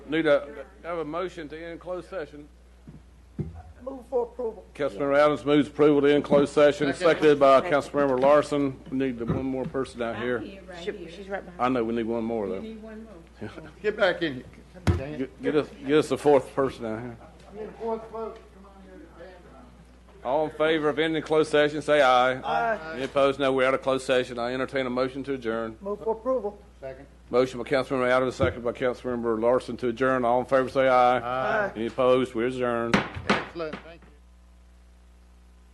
Need a, have a motion to end closed session. Move for approval. Councilmember Adams moves approval to end closed session, seconded by Councilmember Larson. We need the one more person out here. right She- She's right behind. I know we need one more, though. Need one more. Get back in here. Dang it. Get- Get us, get us a fourth person out here. All in favor of ending closed session, say aye. Aye. Any opposed? No, we're out of closed session. I entertain a motion to adjourn. Move for approval. Second. Motion by Councilmember Adams, seconded by Councilmember Larson to adjourn. All in favor, say aye. Aye. Any opposed? We adjourn. Excellent. Thank you.